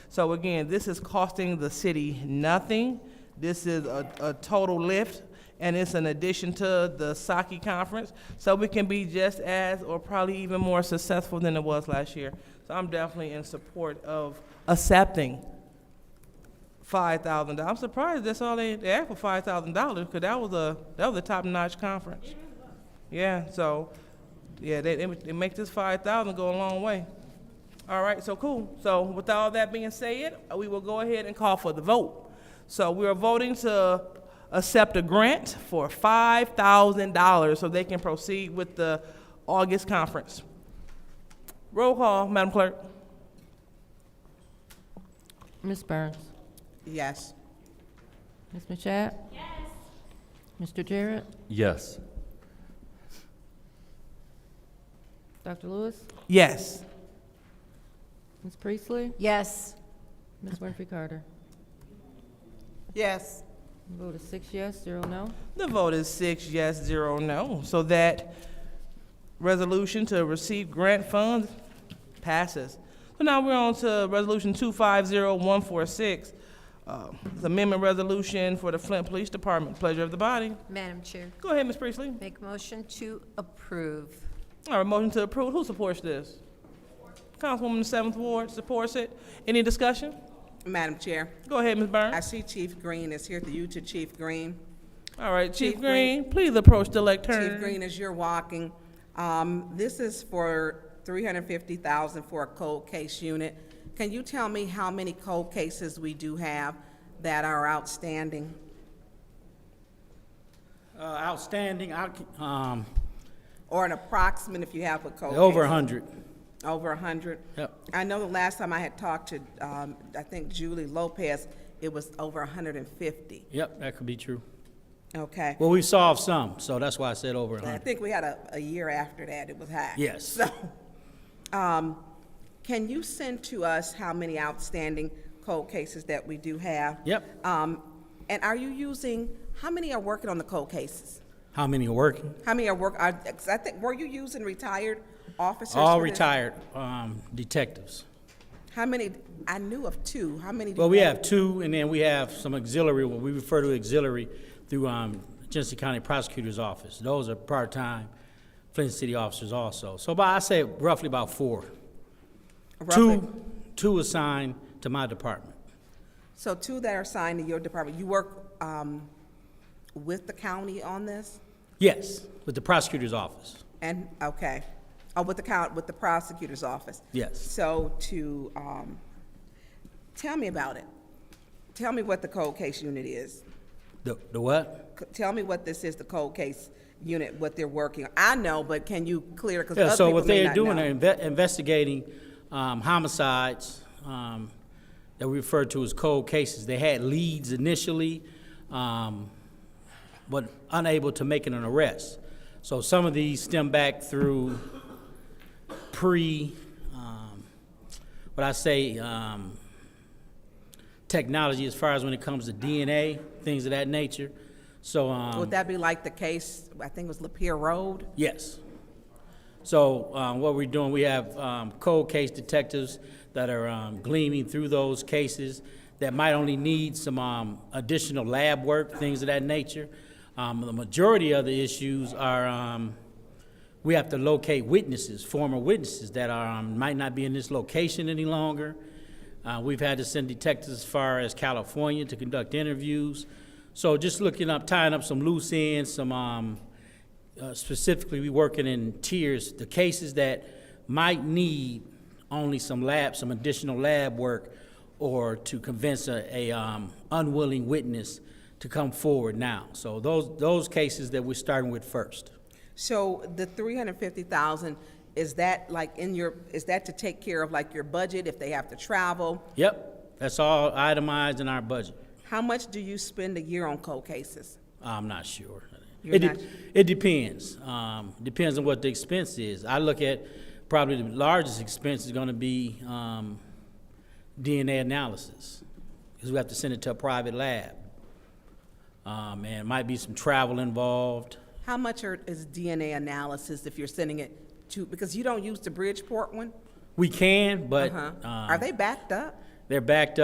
So again, this is costing the city nothing. This is a, a total lift, and it's an addition to the Saki conference. So we can be just as, or probably even more successful than it was last year. So I'm definitely in support of accepting five thousand dollars. I'm surprised that's all they, they asked for five thousand dollars because that was a that was a top notch conference. Yeah, so yeah, they, they, they make this five thousand go a long way. All right, so cool. So with all that being said, we will go ahead and call for the vote. So we are voting to accept a grant for five thousand dollars so they can proceed with the August conference. Roll call, Madam Clerk. Ms. Burns? Yes. Ms. Machad? Yes. Mr. Jarrett? Yes. Dr. Lewis? Yes. Ms. Priestley? Yes. Ms. Winfrey Carter? Yes. Vote is six yes, zero no. The vote is six yes, zero no. So that resolution to receive grant funds passes. So now we're on to Resolution 250146, uh, it's amendment resolution for the Flint Police Department. Pleasure of the body. Madam Chair, Go ahead, Ms. Priestley. make motion to approve. All right, motion to approve. Who supports this? Councilwoman the Seventh Ward supports it. Any discussion? Madam Chair, Go ahead, Ms. I Burns. see Chief Green is here to you, to Chief Green. All right, Chief Chief Green, please approach the Chief lectern. Green, as you're walking, um, this is for three hundred fifty thousand for a cold case unit. Can you tell me how many cold cases we do have that are outstanding? Uh, Outstanding, I c- um, Or an approximate if you have a cold case? over 100. Over a hundred? Yep. I know the last time I had talked to, um, I think Julie Lopez, it was over hundred and fifty, Yep, that could be true. okay? Well, we solved some, so that's why I said over I 100. think we had a, a year after that, it was high. Yes. So, um, can you send to us how many outstanding cold cases that we do have? Yep. Um, and are you using, how many are working on the cold cases? How many are working? How many are work, are, 'cause I think, were you using retired officers? All for this? retired um, detectives. How many, I knew of two, how many? do Well, you we have two, and then we have some auxiliary, what we refer to auxiliary through um, Genesee County Prosecutor's Office. Those are part-time Flint City officers also. So about, I say roughly about four. Roughly. Two, two assigned to my department. So two that are assigned to your department, you work, um, with the county on this? Yes, with the prosecutor's office. And, okay, oh, with the count, with the prosecutor's office? Yes. So to, um, tell me about it. Tell me what the cold case unit is. The, the what? C- Tell me what this is, the cold case unit, what they're working. on. I know, but can you clear, because Yeah, other so people what may they're not doing, they're know. inve- investigating um, homicides um, that we refer to as cold cases. They had leads initially, um, but unable to make an arrest. So some of these stem back through pre, um, what I say, um, technology as far as when it comes to DNA, things of that nature. So, um, Would that be like the case, I think it was Lapeer Road? Yes. So um, what we're doing, we have um, cold case detectives that are um, gleaming through those cases that might only need some um, additional lab work, things of that nature. Um, The majority of the issues are, um, we have to locate witnesses, former witnesses that are, um, might not be in this location any longer. Uh, We've had to send detectives as far as California to conduct interviews. So just looking up, tying up some loose ends, some um, uh, specifically, we working in tiers, the cases that might need only some lab, some additional lab work, or to convince a, a um, unwilling witness to come forward now. So those, those cases that we're starting with first. So the three hundred fifty thousand, is that like in your, is that to take care of like your budget if they have to travel? Yep, that's all itemized in our budget. How much do you spend a year on cold cases? I'm not sure. You're It, de- not- it depends. Um, depends on what the expense is. I look at probably the largest expense is going to be um, DNA analysis because we have to send it to a private lab. Um, and might be some travel involved. How much are, is DNA analysis if you're sending it to, because you don't use the Bridgeport one? We can, but Uh-huh. um, Are they backed up? They're backed up.